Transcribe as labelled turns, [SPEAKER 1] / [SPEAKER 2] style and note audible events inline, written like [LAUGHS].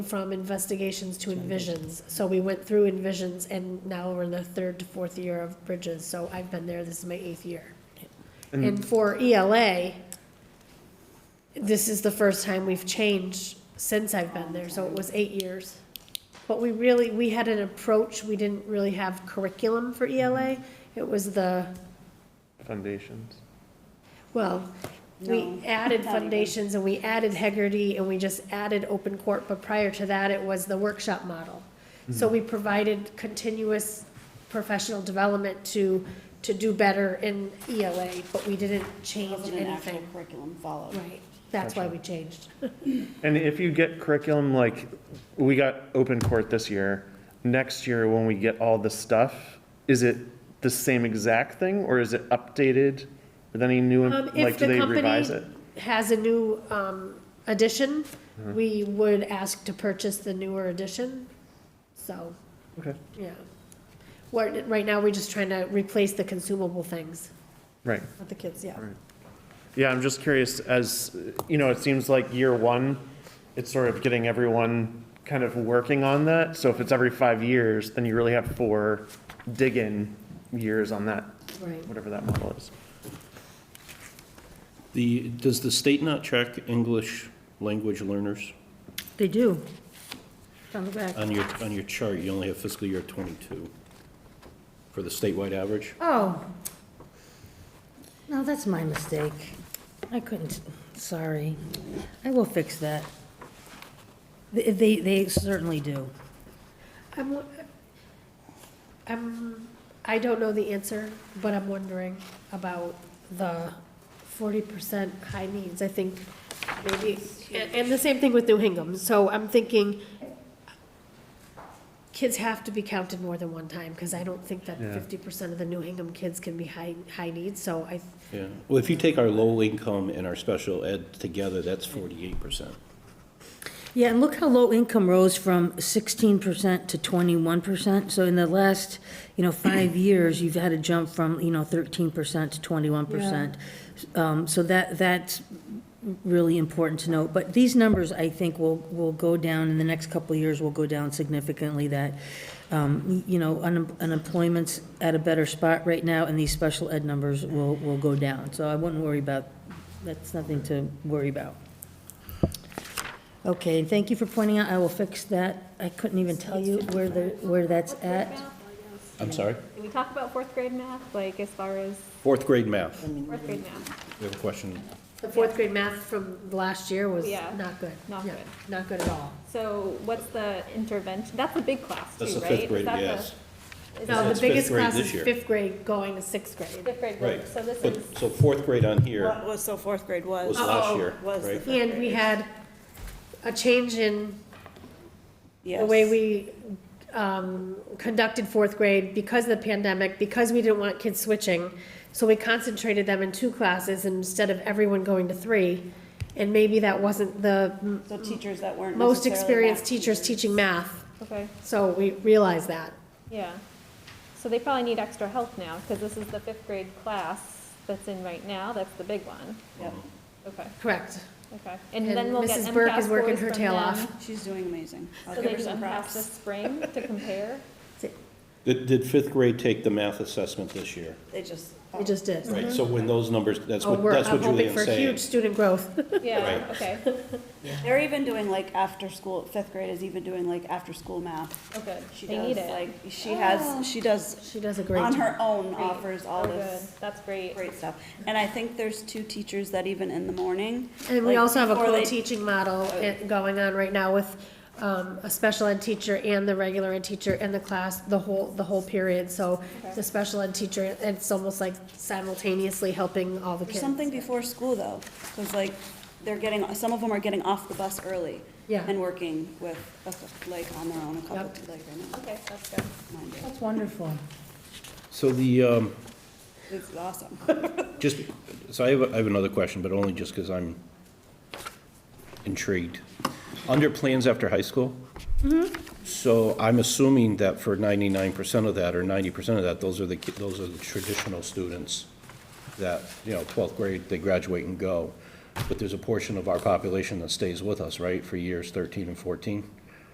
[SPEAKER 1] from investigations to envisions. So we went through envisions and now we're in the third to fourth year of bridges. So I've been there, this is my eighth year. And for ELA, this is the first time we've changed since I've been there, so it was eight years. But we really, we had an approach, we didn't really have curriculum for ELA. It was the,
[SPEAKER 2] Foundations.
[SPEAKER 1] well, we
[SPEAKER 3] No,
[SPEAKER 1] added
[SPEAKER 3] not even.
[SPEAKER 1] foundations and we added Hegarty and we just added open court, but prior to that, it was the workshop model. So
[SPEAKER 2] Hmm.
[SPEAKER 1] we provided continuous professional development to, to do better in ELA, but we didn't change
[SPEAKER 3] Wasn't an actual
[SPEAKER 1] anything.
[SPEAKER 3] curriculum followed.
[SPEAKER 1] Right, that's why we changed.
[SPEAKER 2] And if you get curriculum, like, we got open court this year, next year when we get all the stuff, is it the same exact thing or is it updated with any new,
[SPEAKER 1] Um,
[SPEAKER 2] like,
[SPEAKER 1] If
[SPEAKER 2] do
[SPEAKER 1] the
[SPEAKER 2] they revise
[SPEAKER 1] company
[SPEAKER 2] it?
[SPEAKER 1] has a new um, edition,
[SPEAKER 2] Hmm.
[SPEAKER 1] we would ask to purchase the newer edition, so,
[SPEAKER 2] Okay,
[SPEAKER 1] yeah. What, right now, we're just trying to replace the consumable things
[SPEAKER 2] right.
[SPEAKER 1] with the kids, yeah.
[SPEAKER 2] Yeah, I'm just curious, as, you know, it seems like year one, it's sort of getting everyone kind of working on that. So if it's every five years, then you really have four dig-in years on that,
[SPEAKER 1] Right.
[SPEAKER 2] whatever that model is.
[SPEAKER 4] The, does the state not track English language learners?
[SPEAKER 5] They do. It's On the back.
[SPEAKER 4] On your, on your chart, you only have fiscal year 22 for the statewide average.
[SPEAKER 5] Oh. No, that's my mistake. I couldn't, sorry. I will fix that. They- They, they certainly do.
[SPEAKER 1] I'm, wo- I'm, I don't know the answer, but I'm wondering about the forty percent high needs, I think, maybe, and, and the same thing with New Hingham, so I'm thinking kids have to be counted more than one time, because I don't think that
[SPEAKER 2] Yeah.
[SPEAKER 1] fifty percent of the New Hingham kids can be high, high needs, so I,
[SPEAKER 4] Yeah. Well, if you take our low income and our special ed together, that's 48%.
[SPEAKER 5] Yeah, and look how low income rose from 16% to 21%. So in the last, you know, five years, you've had a jump from, you know, 13% to 21%. Um, So that, that's really important to note. But these numbers, I think, will, will go down, in the next couple of years, will go down significantly, that, um, you know, unem- unemployment's at a better spot right now, and these special ed numbers will, will go down. So I wouldn't worry about, that's nothing to worry about. Okay, and thank you for pointing out, I will fix that. I couldn't even tell you where the, where that's at.
[SPEAKER 4] I'm sorry?
[SPEAKER 6] Can we talk about fourth grade math, like as far as
[SPEAKER 4] Fourth grade math. We
[SPEAKER 6] fourth grade math?
[SPEAKER 4] have a question.
[SPEAKER 1] the fourth grade math from last year was
[SPEAKER 6] Yeah.
[SPEAKER 1] not good.
[SPEAKER 6] Not
[SPEAKER 1] No,
[SPEAKER 6] good.
[SPEAKER 1] Not good at all.
[SPEAKER 6] So what's the intervention? That's a big class too, right?
[SPEAKER 4] That's the fifth
[SPEAKER 6] Is
[SPEAKER 4] grade,
[SPEAKER 6] that the-
[SPEAKER 4] yes.
[SPEAKER 1] No,
[SPEAKER 6] is that
[SPEAKER 4] That's
[SPEAKER 1] the
[SPEAKER 4] fifth
[SPEAKER 1] biggest
[SPEAKER 4] grade
[SPEAKER 1] class
[SPEAKER 4] this
[SPEAKER 1] is
[SPEAKER 4] year.
[SPEAKER 1] fifth grade going to sixth
[SPEAKER 6] the
[SPEAKER 1] grade.
[SPEAKER 6] Fifth grade,
[SPEAKER 4] Right.
[SPEAKER 6] group? so this
[SPEAKER 4] But-
[SPEAKER 6] is,
[SPEAKER 4] So fourth grade on here
[SPEAKER 7] What was, so fourth grade was?
[SPEAKER 4] was last
[SPEAKER 1] Uh-oh.
[SPEAKER 4] year,
[SPEAKER 7] Was the
[SPEAKER 4] right?
[SPEAKER 1] And we had a change in the
[SPEAKER 7] Yes.
[SPEAKER 1] way we um, conducted fourth grade because of the pandemic, because we didn't want kids switching. So we concentrated them in two classes instead of everyone going to three. And maybe that wasn't the m-
[SPEAKER 3] So teachers that weren't
[SPEAKER 1] most
[SPEAKER 3] necessarily
[SPEAKER 1] experienced
[SPEAKER 3] math
[SPEAKER 1] teachers teaching math.
[SPEAKER 6] okay,
[SPEAKER 1] So we realized that.
[SPEAKER 6] yeah. So they probably need extra help now, because this is the fifth grade class that's in right now, that's the big one.
[SPEAKER 3] Yep.
[SPEAKER 6] Okay,
[SPEAKER 1] Correct.
[SPEAKER 6] okay. And
[SPEAKER 1] And
[SPEAKER 6] then we'll get MCAS scores
[SPEAKER 1] Mrs. Burke is working her
[SPEAKER 6] from
[SPEAKER 1] tail
[SPEAKER 6] them,
[SPEAKER 1] off.
[SPEAKER 3] She's doing amazing. I'll
[SPEAKER 6] So
[SPEAKER 3] give
[SPEAKER 6] they
[SPEAKER 3] her some
[SPEAKER 6] can pass this
[SPEAKER 3] props.
[SPEAKER 6] spring
[SPEAKER 3] [LAUGHS]
[SPEAKER 6] to compare?
[SPEAKER 4] Did, did fifth grade take the math assessment this year?
[SPEAKER 3] They just.
[SPEAKER 1] We just did.
[SPEAKER 4] Right, so when those numbers, that's
[SPEAKER 1] Oh,
[SPEAKER 4] what,
[SPEAKER 1] we're
[SPEAKER 4] that's what
[SPEAKER 1] I'm hoping
[SPEAKER 4] Julian's
[SPEAKER 1] for
[SPEAKER 4] saying.
[SPEAKER 1] huge student growth. [LAUGHS]
[SPEAKER 6] Yeah,
[SPEAKER 4] Right.
[SPEAKER 6] okay,
[SPEAKER 3] Oh. They're even doing like after school, fifth grade is even doing like after school math.
[SPEAKER 6] okay.
[SPEAKER 3] She
[SPEAKER 6] Oh, They need
[SPEAKER 3] does
[SPEAKER 6] it.
[SPEAKER 3] like, she has, she does,
[SPEAKER 1] She does a Oh. great
[SPEAKER 3] on
[SPEAKER 1] job.
[SPEAKER 3] her own
[SPEAKER 6] Great.
[SPEAKER 3] offers all
[SPEAKER 6] Oh,
[SPEAKER 3] this
[SPEAKER 6] good. That's great.
[SPEAKER 3] great stuff. And I think there's two teachers that even in the morning.
[SPEAKER 1] And we
[SPEAKER 3] like,
[SPEAKER 1] also have a
[SPEAKER 3] before they- Oh.
[SPEAKER 1] co-teaching model i- going on right now with um, a special ed teacher and the regular ed teacher in the class, the whole, the whole period. So the special ed teacher, it's almost like simultaneously helping all the
[SPEAKER 3] There's
[SPEAKER 1] kids.
[SPEAKER 3] something before school though, because like, they're getting, some of them are getting off the bus early.
[SPEAKER 1] Yeah.
[SPEAKER 3] And working with, a cou- like, on their own, a couple,
[SPEAKER 1] Yep.
[SPEAKER 3] like, I know,
[SPEAKER 6] Okay, that's good.
[SPEAKER 3] mind you.
[SPEAKER 5] That's wonderful.
[SPEAKER 4] So the, um,
[SPEAKER 3] It's awesome.
[SPEAKER 1] [LAUGHS]
[SPEAKER 4] Just, so I have, I have another question, but only just because I'm intrigued. Under plans after high school? So I'm assuming that for ninety-nine percent of that, or ninety percent of that, those are the, ki- those are the traditional students that, you know, twelfth grade, they graduate and go. But there's a portion of our population that stays with us, right, for years thirteen and fourteen?